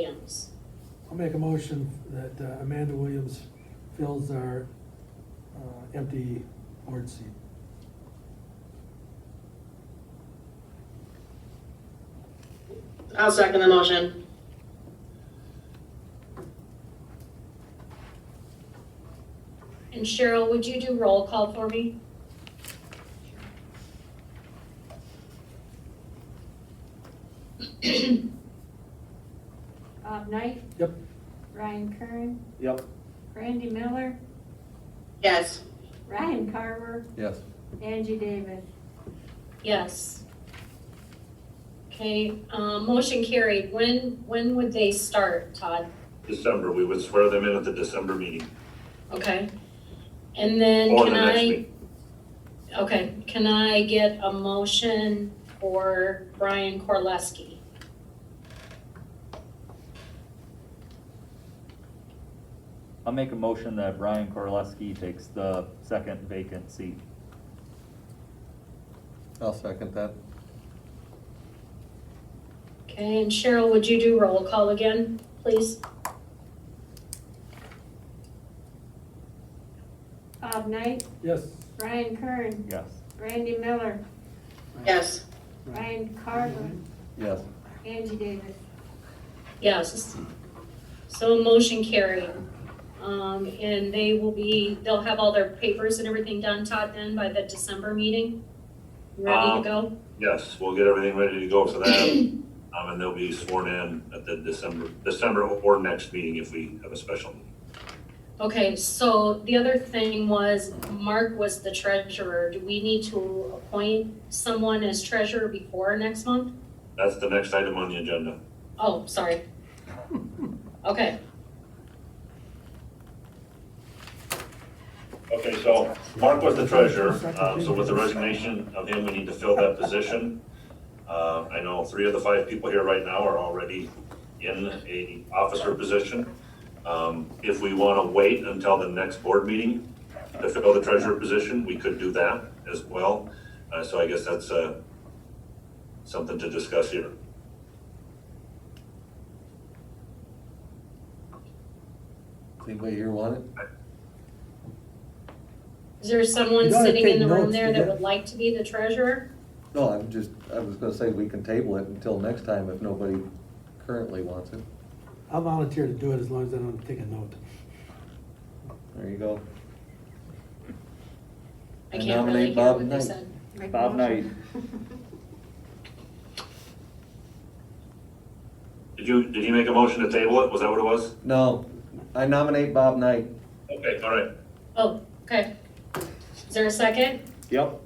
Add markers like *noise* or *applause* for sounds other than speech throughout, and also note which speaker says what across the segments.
Speaker 1: Williams.
Speaker 2: I'll make a motion that uh, Amanda Williams fills our uh, empty board seat.
Speaker 3: I'll second the motion.
Speaker 1: And Cheryl, would you do roll call for me?
Speaker 4: Bob Knight,
Speaker 2: Yep.
Speaker 4: Ryan Kern,
Speaker 5: Yep.
Speaker 4: Randy Miller,
Speaker 3: Yes.
Speaker 4: Ryan Carver,
Speaker 5: Yes.
Speaker 4: Angie Davis.
Speaker 1: Yes. Okay, uh, motion carried. When, when would they start, Todd?
Speaker 6: December, we would swear them in at the December meeting,
Speaker 1: Okay. And then
Speaker 6: or
Speaker 1: can
Speaker 6: the next
Speaker 1: I,
Speaker 6: meeting.
Speaker 1: okay, can I get a motion for Brian Korleski?
Speaker 7: I'll make a motion that Brian Korleski takes the second vacant seat.
Speaker 5: I'll second that.
Speaker 1: Okay, and Cheryl, would you do roll call again, please?
Speaker 4: Bob Knight,
Speaker 2: Yes.
Speaker 4: Ryan Kern,
Speaker 7: Yes.
Speaker 4: Randy Miller,
Speaker 3: Yes.
Speaker 4: Ryan Carver,
Speaker 5: Yes.
Speaker 4: Angie Davis.
Speaker 1: Yes. So motion carried. Um, and they will be, they'll have all their papers and everything done, Todd, then by the December meeting? Ready
Speaker 5: Uh,
Speaker 1: to
Speaker 6: Um,
Speaker 1: go?
Speaker 6: Yes, we'll get everything ready to go for that, um, and they'll be sworn in at the December, December or next meeting if we have a special meeting.
Speaker 1: Okay, so the other thing was Mark was the treasurer. Do we need to appoint someone as treasurer before next month?
Speaker 6: That's the next item on the agenda.
Speaker 1: Oh, sorry. Okay,
Speaker 6: Okay, so Mark was the treasurer, um, so with the resignation of him, we need to fill that position. Uh, I know three of the five people here right now are already in a officer position. Um, if we want to wait until the next board meeting to fill the treasurer position, we could do that as well. Uh, so I guess that's, uh, something to discuss here.
Speaker 5: Anybody here want it?
Speaker 1: is there someone
Speaker 2: You gotta
Speaker 1: sitting in
Speaker 2: take
Speaker 1: the room
Speaker 2: notes,
Speaker 1: there
Speaker 2: you
Speaker 1: that
Speaker 2: got-
Speaker 1: would like to be the treasurer?
Speaker 5: No, I'm just, I was gonna say we can table it until next time if nobody currently wants it.
Speaker 2: I'll volunteer to do it as long as I don't take a note.
Speaker 5: There you go.
Speaker 1: I
Speaker 5: I
Speaker 1: can't really
Speaker 5: nominate
Speaker 1: hear
Speaker 5: Bob
Speaker 1: what they
Speaker 5: Knight.
Speaker 1: said.
Speaker 4: Make
Speaker 7: Bob
Speaker 4: motion.
Speaker 6: Did you, did he make a motion to table it? Was that what it was?
Speaker 5: No, I nominate Bob Knight.
Speaker 6: Okay, all right.
Speaker 1: Oh, okay. Is there a second?
Speaker 7: Yep.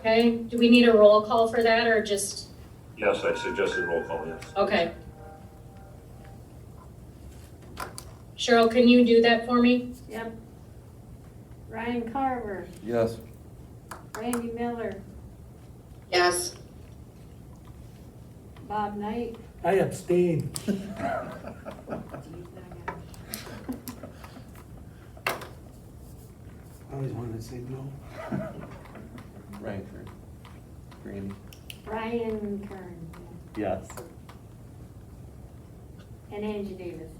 Speaker 1: Okay, do we need a roll call for that or just,
Speaker 6: Yes, I suggested roll call, yes.
Speaker 1: okay. Cheryl, can you do that for me?
Speaker 4: Yep. Ryan Carver,
Speaker 5: Yes.
Speaker 4: Randy Miller,
Speaker 3: Yes.
Speaker 4: Bob Knight,
Speaker 2: I abstain. I always wanted to say no.
Speaker 5: *laughs* Ranford. Randy.
Speaker 4: Ryan Kern,
Speaker 7: Yes.
Speaker 4: and Angie Davis.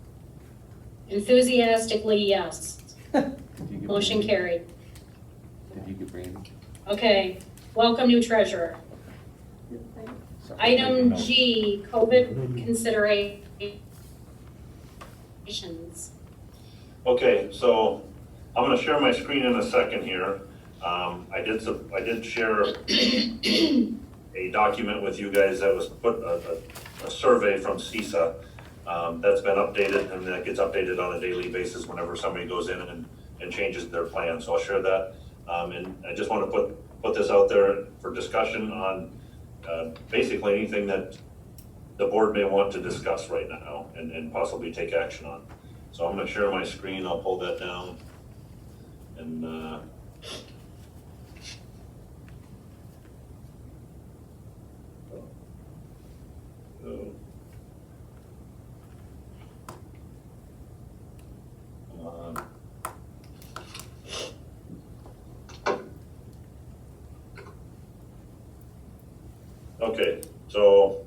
Speaker 1: Enthusiastically, yes.
Speaker 5: Did you get
Speaker 1: Motion
Speaker 5: Randy?
Speaker 1: carried.
Speaker 5: Did you get Randy?
Speaker 1: Okay, welcome new treasurer.
Speaker 5: Sorry.
Speaker 1: Item G, COVID considerations.
Speaker 6: Okay, so I'm gonna share my screen in a second here. Um, I did, sub- I did share a document with you guys that was put, a, a, a survey from CISA. Um, that's been updated and that gets updated on a daily basis whenever somebody goes in and, and changes their plan, so I'll share that. Um, and I just wanna put, put this out there for discussion on, uh, basically anything that the board may want to discuss right now and, and possibly take action on. So I'm gonna share my screen, I'll pull that down. And, uh. so- Um, Okay, so uh,